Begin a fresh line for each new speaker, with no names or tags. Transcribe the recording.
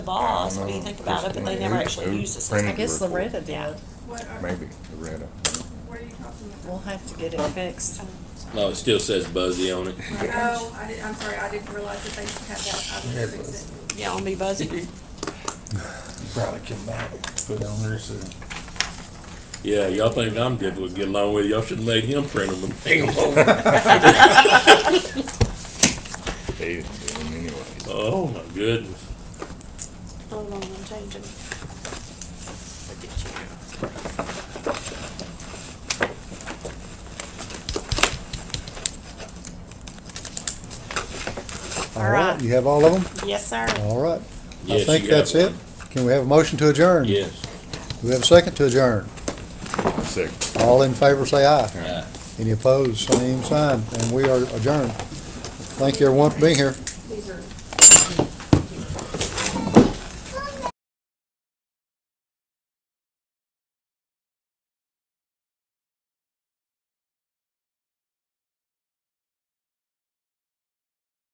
the boss,
I
what do you
know.
think about it, but they
It's-
never
it-
actually
it
use the system.
printed
I guess
report.
Loretta did.
What are,
Maybe Loretta.
what are you talking about?
We'll have to get it fixed.
No, it still says Buzzy on it.
Oh, I did, I'm sorry, I didn't realize that they had that, I would fix it.
Yeah, on me buzzy.
Probably can back, put on there, so.
Yeah, y'all think I'm difficult to get along with. Y'all should've made him print them and hang them over.
They didn't do them anyways.
Oh, my goodness.
Hold on, I'm changing.
All right, you have all of them?
Yes, sir.
All right. I
Yes,
think
you got
that's it.
one.
Can we have a motion to adjourn?
Yes.
Do we have a second to adjourn?
Sick.
All in favor, say aye.
Aye.
Any opposed, same sign, and we are adjourned. Thank you everyone for being here.